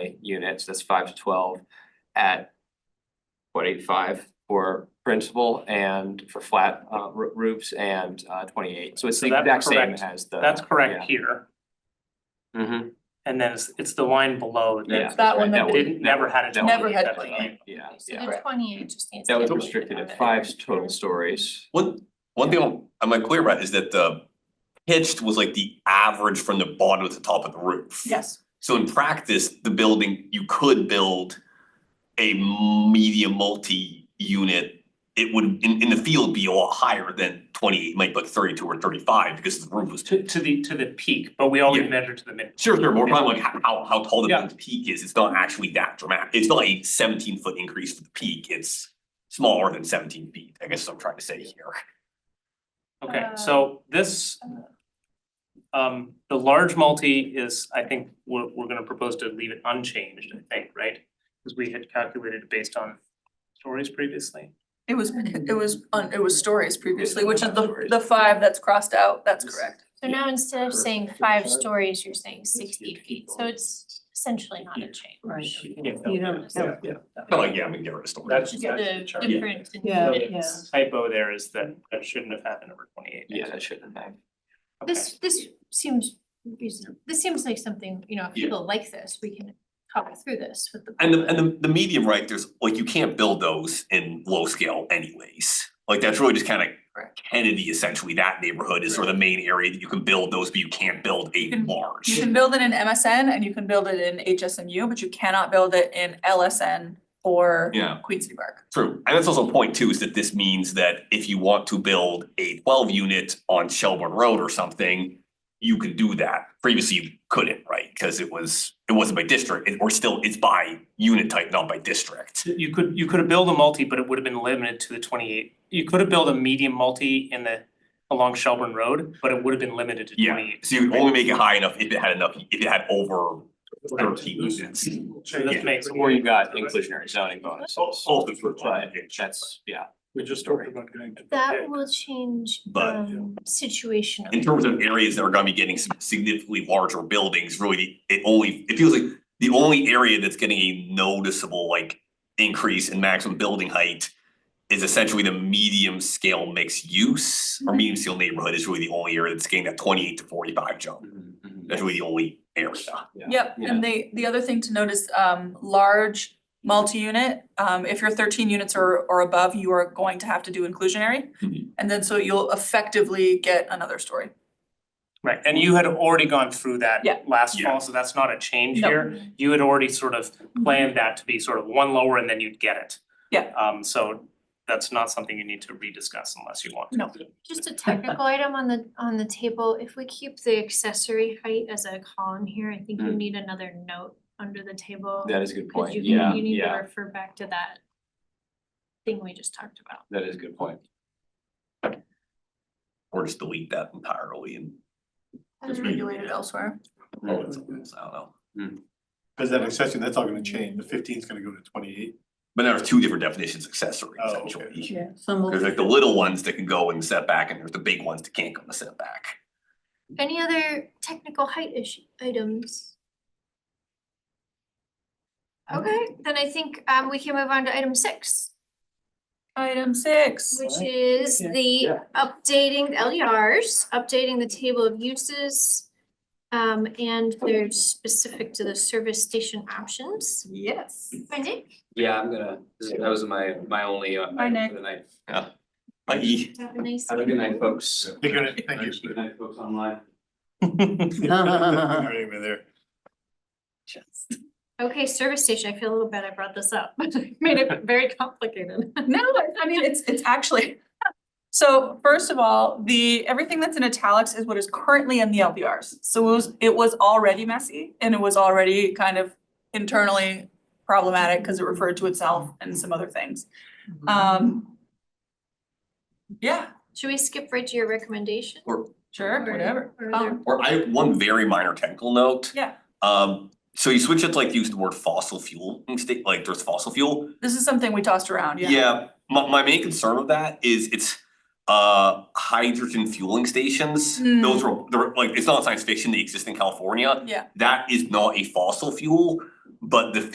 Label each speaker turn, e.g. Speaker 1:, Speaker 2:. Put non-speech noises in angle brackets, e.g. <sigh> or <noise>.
Speaker 1: multi-units, that's five to twelve at what, eight-five for principal and for flat uh roo- roofs and uh twenty-eight, so it's
Speaker 2: So
Speaker 1: the
Speaker 2: that's
Speaker 1: exact same
Speaker 2: correct.
Speaker 1: as the.
Speaker 2: That's correct here,
Speaker 3: Mm-hmm.
Speaker 1: hmm
Speaker 2: and then it's it's the line below
Speaker 1: yeah.
Speaker 2: that
Speaker 4: That one
Speaker 1: That
Speaker 4: that
Speaker 1: one-
Speaker 4: we,
Speaker 2: didn't, never had a.
Speaker 1: that one-
Speaker 4: Never had
Speaker 2: that's
Speaker 4: one.
Speaker 2: the-
Speaker 1: Yeah,
Speaker 5: So
Speaker 1: yeah,
Speaker 5: the twenty-eight just needs.
Speaker 1: that
Speaker 5: to
Speaker 1: was
Speaker 5: be
Speaker 1: restricted
Speaker 5: out of
Speaker 1: at
Speaker 5: it.
Speaker 1: five total stories.
Speaker 6: One, one thing I'm, am I clear about is that the pitched was like the average from the bottom to the top of the roof.
Speaker 4: yes,
Speaker 6: So in practice, the building, you could build a medium multi-unit. It would, in, in the field, be a lot higher than twenty, might be like thirty-two or thirty-five because the roof was.
Speaker 2: To to the to the peak, but we always
Speaker 6: Yeah.
Speaker 2: measure to the mid.
Speaker 6: Sure, sure, we're probably like how, how tall the
Speaker 2: Yeah.
Speaker 6: building's peak is, it's not actually that dramatic, it's not a seventeen-foot increase for the peak, it's smaller than seventeen feet, I guess is what I'm trying to say here.
Speaker 2: Okay,
Speaker 5: Uh,
Speaker 2: so this. Um, the large multi is, I think, we're we're gonna propose to leave it unchanged, I think, right? Cause we had calculated it based on stories previously.
Speaker 4: it was, it was, on it was stories previously, which is the,
Speaker 1: Stories.
Speaker 4: the five that's crossed out, that's
Speaker 1: Yes.
Speaker 4: correct.
Speaker 5: So now instead of saying
Speaker 1: Perfect.
Speaker 5: five
Speaker 1: Sorry.
Speaker 5: stories, you're saying sixty
Speaker 1: Sixty
Speaker 5: feet, so
Speaker 1: people.
Speaker 5: it's essentially not a
Speaker 2: Yeah.
Speaker 5: change.
Speaker 7: Right.
Speaker 2: Yeah,
Speaker 7: You don't
Speaker 2: yeah,
Speaker 7: have-
Speaker 2: yeah.
Speaker 6: But <laughs> like, yeah, we can get rid of storage.
Speaker 2: That's
Speaker 5: Just
Speaker 2: that's
Speaker 5: the
Speaker 2: the chart.
Speaker 5: difference in
Speaker 7: Yeah,
Speaker 5: units.
Speaker 7: yeah.
Speaker 2: Typo there is that that shouldn't have happened over twenty eight.
Speaker 1: Yeah, that shouldn't have.
Speaker 5: This this seems reasonable, this seems like something, you know, if
Speaker 6: Yeah.
Speaker 5: people like this, we can talk through this with the.
Speaker 6: And the, and the, the medium, right, there's, like, you can't build those in low scale anyways. Like, that's really just kind of
Speaker 4: Correct.
Speaker 6: Kennedy essentially, that neighborhood is sort of the main area that you can build those, but you can't build
Speaker 4: You
Speaker 6: a
Speaker 4: can- You
Speaker 6: large.
Speaker 4: can build it in MSN and you can build it in HSMU, but you cannot build it in LSN or
Speaker 6: Yeah.
Speaker 4: Queen City Park.
Speaker 6: True, and that's also a point too, is that this means that if you want to build a twelve unit on Shelburne Road or something, you can do that. Previously, you couldn't, right, because it was, it wasn't by district, it, or still, it's by unit type, not by district.
Speaker 2: You could you could have built a multi, but it would have been limited to the twenty eight. You could have built a medium multi in the along Shelburne Road, but it would have been limited to
Speaker 6: Yeah,
Speaker 2: twenty eight.
Speaker 6: so you would only make it high enough if it had enough, if it had over thirteen units.
Speaker 2: So this makes
Speaker 1: Or you got inclusionary zoning bonuses.
Speaker 2: Oh,
Speaker 6: All the fruit
Speaker 1: But
Speaker 6: fly.
Speaker 1: that's, yeah,
Speaker 8: We just talked about going to.
Speaker 5: That will change
Speaker 6: But-
Speaker 5: um situation.
Speaker 6: In terms of areas that are gonna be getting some significantly larger buildings, really, it only, it feels like the only area that's getting a noticeable like increase in maximum building height is essentially the medium scale mixed use or
Speaker 8: Mm-hmm.
Speaker 5: Mhm.
Speaker 6: medium scale neighborhood is really the only area that's getting that twenty eight to forty five jump.
Speaker 3: Mm-hmm.
Speaker 6: That's really the only area.
Speaker 4: Yep,
Speaker 1: Yeah.
Speaker 4: and they, the other thing to note is um large multi-unit, um if you're thirteen units or or above, you are going to have to do inclusionary.
Speaker 6: Mhm.
Speaker 4: And then so you'll effectively get another story.
Speaker 2: Right, and you had already gone through that
Speaker 4: Yeah.
Speaker 2: last
Speaker 6: Yeah.
Speaker 2: fall, so that's not a change
Speaker 4: No. Mm-hmm.
Speaker 2: here. You had already sort of planned that to be sort of one lower and then you'd get it.
Speaker 4: Yeah.
Speaker 2: Um so that's not something you need to rediscuss unless you want to.
Speaker 4: No.
Speaker 5: Just a technical item on the on the table, if we keep the accessory height as a column here, I think you
Speaker 1: Mm.
Speaker 5: need another note under the table.
Speaker 1: that is a good
Speaker 5: Cause
Speaker 1: point,
Speaker 5: you
Speaker 1: yeah,
Speaker 5: can, you need to
Speaker 1: yeah,
Speaker 5: refer back to that thing we just talked about.
Speaker 1: that is a good point.
Speaker 6: Or just delete that entirely and.
Speaker 4: It's regulated elsewhere.
Speaker 6: Oh, it's- it's- I don't know.
Speaker 8: Cause that accessory, that's all gonna change, the fifteen's gonna go to twenty-eight.
Speaker 6: But there's two different definitions, of accessory
Speaker 8: Oh, okay.
Speaker 6: essentially.
Speaker 7: Yeah, some will.
Speaker 6: There's like the little ones that can go in the setback and there's the big ones that can't go in the setback.
Speaker 5: Any other technical height issue items? Okay, then I think um we can move on to item six,
Speaker 4: Item six.
Speaker 5: which is
Speaker 7: Yeah.
Speaker 5: the updating LERs, updating the table of uses. Um and they're specific to the service station options.
Speaker 4: Yes.
Speaker 5: Brendan?
Speaker 3: Yeah, I'm gonna, this- that was my, my only uh,
Speaker 4: Bye,
Speaker 3: item
Speaker 4: Nick.
Speaker 3: for the night.
Speaker 6: Like, e-
Speaker 5: Have a nice.
Speaker 3: Have a good night, folks.
Speaker 8: They're gonna, thank
Speaker 3: Good
Speaker 8: you.
Speaker 3: night, folks online.
Speaker 8: <laughs> Alright, we're there.
Speaker 5: Okay, service station, I feel a little bad I brought this up, <laughs> made it very complicated.
Speaker 4: No, I- I mean, it's it's actually. So first of all, the, everything that's in italics is what is currently in the LBRs. So it was, it was already messy and it was already kind of internally problematic because it referred to itself and some other things. Um. Yeah,
Speaker 5: Should we skip right to your recommendation?
Speaker 4: sure, whatever.
Speaker 5: Or
Speaker 4: Um,
Speaker 5: there-
Speaker 6: or I have one very minor technical note.
Speaker 4: Yeah.
Speaker 6: Um, so you switch it to like use the word fossil fuel, instead, like there's fossil fuel.
Speaker 4: This is something we tossed around, yeah.
Speaker 6: Yeah, my my main concern with that is it's uh hydrogen fueling stations.
Speaker 4: Hmm.
Speaker 6: Those are, they're like, it's not science fiction, they exist in California.
Speaker 4: Yeah.
Speaker 6: That is not a fossil fuel, But the